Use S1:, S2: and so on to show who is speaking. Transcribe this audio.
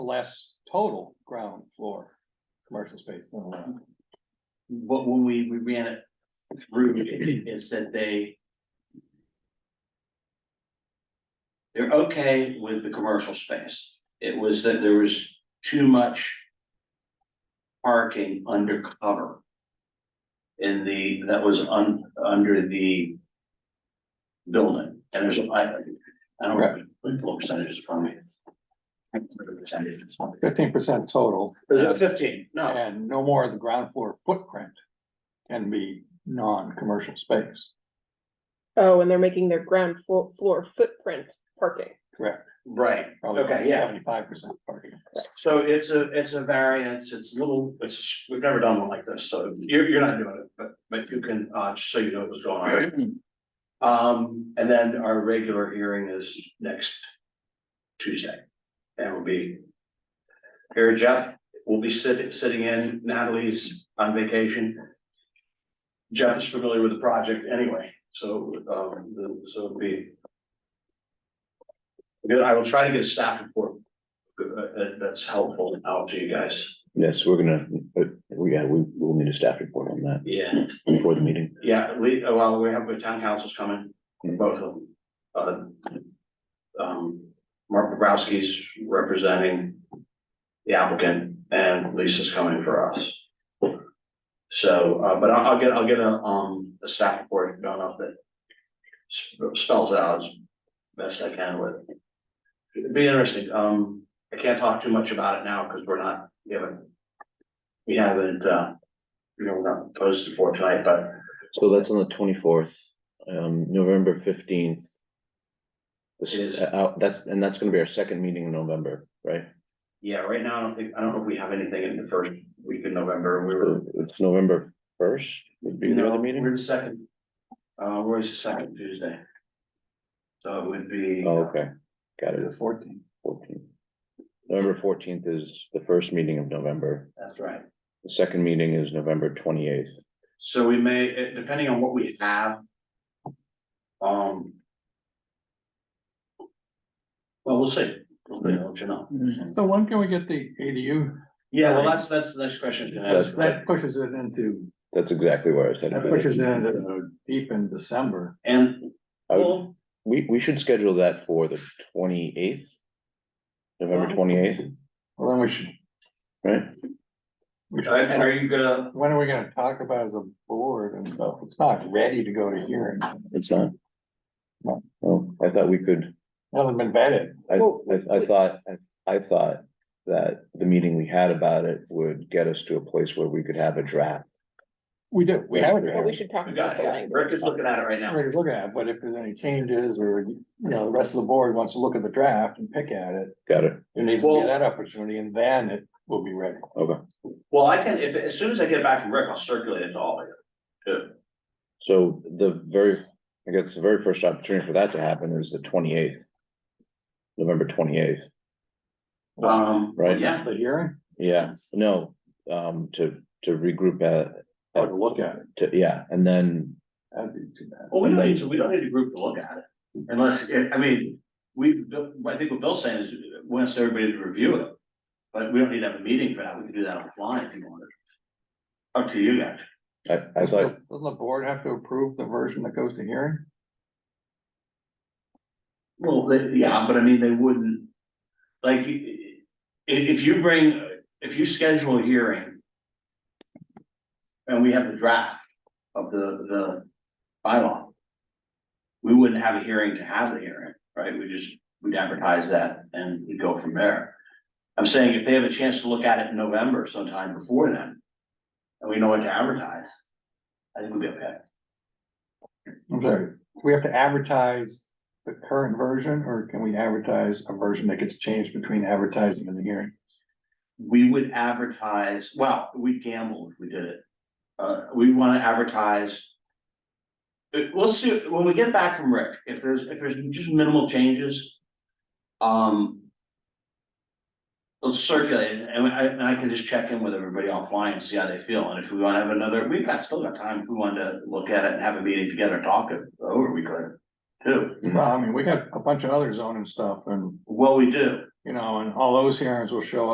S1: less total ground floor commercial space than allowed.
S2: But when we, we ran it through, it it said they. They're okay with the commercial space. It was that there was too much. Parking undercover. In the, that was un, under the. Building, and there's, I, I don't know, what percentages from me. Percentages.
S1: Fifteen percent total
S2: Fifteen, no.
S1: and no more of the ground floor footprint can be non-commercial space,
S3: Oh, and they're making their ground floor, floor footprint parking.
S1: correct?
S2: Right,
S1: Probably
S2: Okay, yeah.
S1: Seventy-five percent parking.
S2: so it's a, it's a variance, it's a little, it's, we've never done one like this, so you're, you're not doing it, but, but you can, uh, just so you know what's going on. Um, and then our regular hearing is next Tuesday, and we'll be. Here, Jeff, will be sitting, sitting in, Natalie's on vacation. Jeff is familiar with the project anyway, so, um, the- so it'll be. Good, I will try to get a staff report uh, that, that's helpful out to you guys.
S4: Yes, we're gonna, but we, yeah, we will need a staff report on that
S2: Yeah.
S4: before the meeting.
S2: Yeah, we, uh, well, we have the town councils coming,
S4: Mhm.
S2: both of them. Uh, Um, Mark Bobrowski's representing the applicant and Lisa's coming for us. So, uh, but I'll, I'll get, I'll get a, um, a staff report done up that sp- spells out as best I can with. It'd be interesting, um, I can't talk too much about it now because we're not, we haven't, we haven't, uh, you know, we're not posted for tonight, but
S4: So that's on the twenty-fourth, um, November fifteenth. This
S2: It is.
S4: is out, that's, and that's gonna be our second meeting in November, right?
S2: Yeah, right now, I don't think, I don't know if we have anything in the first week of November, we were.
S4: Uh, It's November first would be the
S2: No,
S4: other meeting.
S2: We're the second. Uh, where's the second Tuesday? So it would be.
S4: Oh, okay, got
S1: The
S4: it,
S1: fourteen.
S4: fourteen. November fourteenth is the first meeting of November,
S2: That's right.
S4: the second meeting is November twenty-eighth.
S2: So we may, eh, depending on what we have. Um. Well, we'll see. We'll see, I'll let you know.
S1: So when can we get the ADU?
S2: Yeah, well, that's, that's the next question. to ask.
S1: That pushes it into,
S4: That's exactly where I said.
S1: that pushes it into deep in December.
S2: And,
S4: I would-
S2: well,
S4: We, we should schedule that for the twenty-eighth. November
S2: Wow.
S4: twenty-eighth,
S1: Well, then we should,
S4: right?
S1: we should-
S2: and are you gonna,
S1: when are we gonna talk about as a board and stuff? It's not ready to go to hearing.
S4: It's not.
S1: No.
S4: Oh, I thought we could,
S1: Hasn't been vetted.
S4: I,
S3: Well,
S4: I, I thought, I- I thought that the meeting we had about it would get us to a place where we could have a draft.
S1: We do, we have a
S3: Well, we
S1: draft.
S3: should talk
S2: we got
S3: about the
S2: it,
S3: language.
S2: Rick is looking at it right now.
S1: We're already looking at, it, but if there's any changes or, you know, the rest of the board wants to look at the draft and pick at it,
S4: Got it,
S1: there needs to be
S2: Well-
S1: that opportunity and then it will be ready.
S4: okay.
S2: Well, I can, if, as soon as I get back from Rick, I'll circulate it to all of you. Too.
S4: So the very, I guess the very first opportunity for that to happen is the twenty-eighth. November twenty-eighth,
S2: Um,
S4: Right.
S2: yeah,
S1: The hearing,
S4: yeah, no, um, to, to regroup, uh,
S1: or Oh, to look at it,
S4: to, yeah, and then
S1: that'd be too bad.
S2: well, we don't need to, we don't need a group to look at it, unless, eh, I mean, we, I think what Bill's saying is, wants everybody to review it. But we don't need to have a meeting for that, we can do that offline if you wanted. Up to you guys,
S4: I, I thought.
S1: Doesn't the board have to approve the version that goes to hearing?
S2: well, they- yeah, but I mean, they wouldn't, like, i- i- if you bring, if you schedule a hearing. And we have the draft of the, the bylaw. We wouldn't have a hearing to have the hearing, right? We just, we'd advertise that and we go from there. I'm saying if they have a chance to look at it in November sometime before then. And we know what to advertise. I think we'd be okay.
S1: I'm sorry, do we have to advertise the current version or can we advertise a version that gets changed between advertising and the hearing?
S2: we would advertise, well, we'd gamble if we did it. Uh, we wanna advertise. Uh, We'll see, when we get back from Rick, if there's, if there's just minimal changes. Um. Let's circulate it, and I, and I can just check in with everybody offline and see how they feel, and if we wanna have another, we've got, still got time, if we wanted to look at it and have a meeting together, and talk it over, we could. Too,
S4: Mhm.
S1: Well, I mean, we got a bunch of other zoning stuff and
S2: well, we do,
S1: You know, and all those hearings will show